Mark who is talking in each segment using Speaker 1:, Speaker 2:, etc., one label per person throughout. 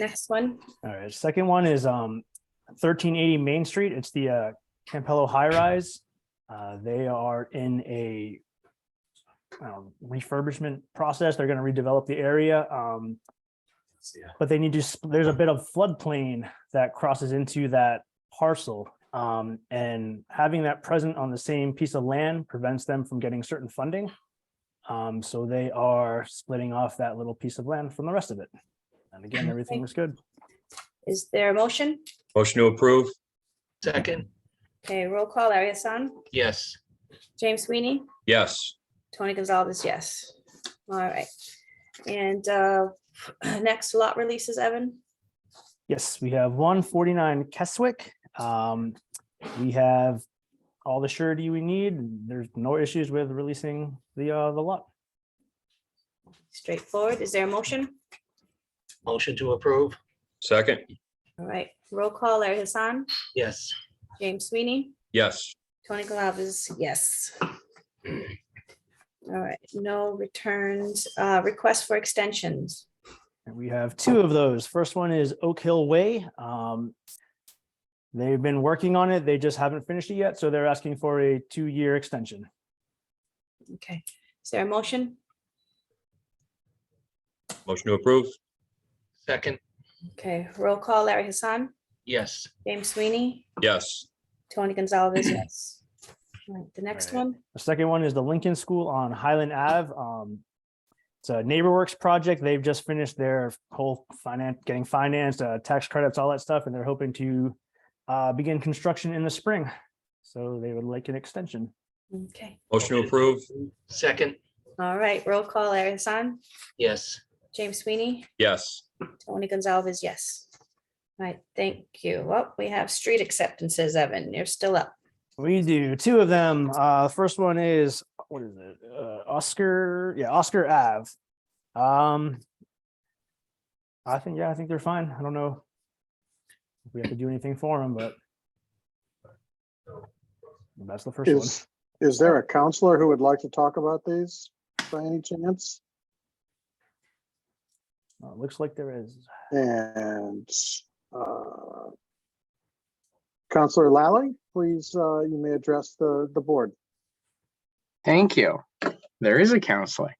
Speaker 1: Next one.
Speaker 2: All right, second one is um thirteen eighty Main Street. It's the uh Campello High Rise. Uh, they are in a um, refurbishment process. They're gonna redevelop the area. Um, but they need to, sp- there's a bit of floodplain that crosses into that parcel. Um, and having that present on the same piece of land prevents them from getting certain funding. Um, so they are splitting off that little piece of land from the rest of it. And again, everything was good.
Speaker 1: Is there a motion?
Speaker 3: Motion to approve?
Speaker 4: Second,
Speaker 1: Okay, roll call, Larry Hassan,
Speaker 4: yes.
Speaker 1: James Sweeney,
Speaker 3: Yes.
Speaker 1: Tony Gonzalez, yes. All right. And uh, next lot releases, Evan.
Speaker 2: Yes, we have one forty-nine Keswick. Um, we have all the surety we need. There's no issues with releasing the, uh, the lot.
Speaker 1: Straightforward. Is there a motion?
Speaker 4: Motion to approve,
Speaker 3: Second?
Speaker 1: All right, roll call, Larry Hassan,
Speaker 4: yes.
Speaker 1: James Sweeney,
Speaker 3: Yes.
Speaker 1: Tony Gonzalez, yes. All right, no returns, uh, request for extensions.
Speaker 2: And we have two of those. First one is Oak Hill Way. Um, they've been working on it. They just haven't finished it yet, so they're asking for a two-year extension.
Speaker 1: Okay, is there a motion?
Speaker 3: Motion to approve?
Speaker 4: Second,
Speaker 1: Okay, roll call, Larry Hassan,
Speaker 4: yes.
Speaker 1: James Sweeney,
Speaker 3: Yes.
Speaker 1: Tony Gonzalez, yes. All right, The next
Speaker 2: Alright.
Speaker 1: one,
Speaker 2: The second one is the Lincoln School on Highland Ave. Um, it's a NeighborWorks project. They've just finished their whole finance, getting financed, uh, tax credits, all that stuff, and they're hoping to uh, begin construction in the spring. So they would like an extension.
Speaker 1: okay,
Speaker 3: Motion to approve?
Speaker 4: Second,
Speaker 1: all right, roll call, Larry Hassan,
Speaker 4: yes.
Speaker 1: James Sweeney,
Speaker 3: Yes.
Speaker 1: Tony Gonzalez, yes. All right, thank you. Well, we have street acceptances, Evan, you're still up.
Speaker 2: We do two of them. Uh, first one is, what is it? Uh, Oscar, yeah, Oscar Ave. Um, I think, yeah, I think they're fine. I don't know. if We have to do anything for them, but that's the first one.
Speaker 5: Is, is there a counselor who would like to talk about these by any chance?
Speaker 2: Uh, Looks like there is.
Speaker 5: And uh, Counselor Lally, please, uh, you may address the, the board.
Speaker 6: Thank you. There is a counselor.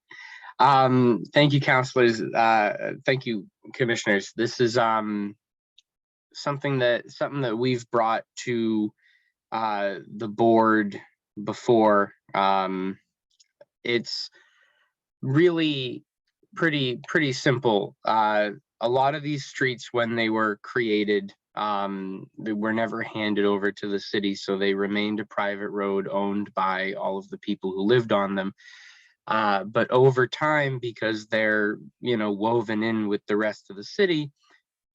Speaker 6: Um, thank you, counselors. Uh, thank you, commissioners. This is um something that something that we've brought to uh the board before. Um, it's really pretty pretty simple. Uh, a lot of these streets when they were created um they were never handed over to the city so they remained a private road owned by all of the people who lived on them uh but over time because they're you know woven in with the rest of the city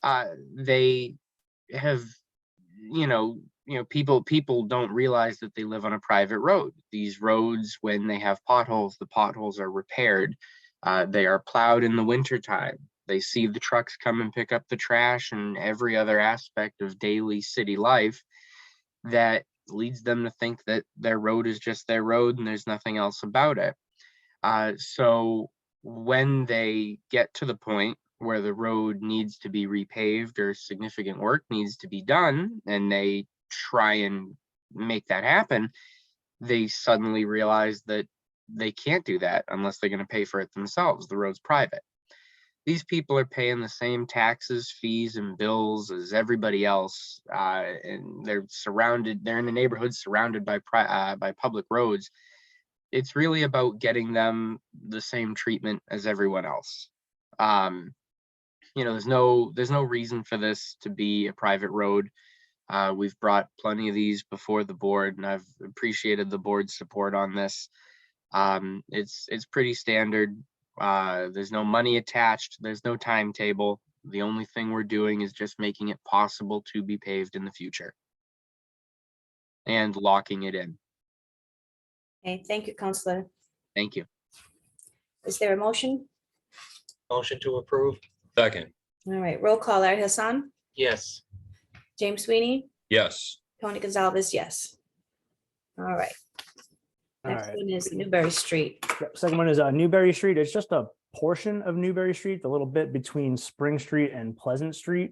Speaker 6: uh they have you know you know people people don't realize that they live on a private road these roads when they have potholes the potholes are repaired uh they are plowed in the wintertime they see the trucks come and pick up the trash and every other aspect of daily city life that leads them to think that their road is just their road and there's nothing else about it. Uh, so when they get to the point where the road needs to be repaved or significant work needs to be done, and they try and make that happen, they suddenly realize that they can't do that unless they're going to pay for it themselves. The road's private these people are paying the same taxes, fees, and bills as everybody else, uh, and they're surrounded. They're in the neighborhood surrounded by pri- uh, by public roads. It's really about getting them the same treatment as everyone else. Um, you know, there's no there's no reason for this to be a private road. Uh, we've brought plenty of these before the board, and I've appreciated the board's support on this. Um, it's it's pretty standard. Uh, there's no money attached. There's no timetable. The only thing we're doing is just making it possible to be paved in the future. And locking it in.
Speaker 1: Okay, thank you, Counselor.
Speaker 6: Thank you.
Speaker 1: Is there a motion?
Speaker 4: Motion to approve,
Speaker 3: Second?
Speaker 1: All right, roll call, Larry Hassan,
Speaker 4: yes.
Speaker 1: James Sweeney,
Speaker 3: Yes.
Speaker 1: Tony Gonzalez, yes. All right,
Speaker 2: All
Speaker 1: next
Speaker 2: right.
Speaker 1: one is Newberry Street.
Speaker 2: Yep, Second one is uh, Newberry Street. It's just a portion of Newberry Street, the little bit between Spring Street and Pleasant Street.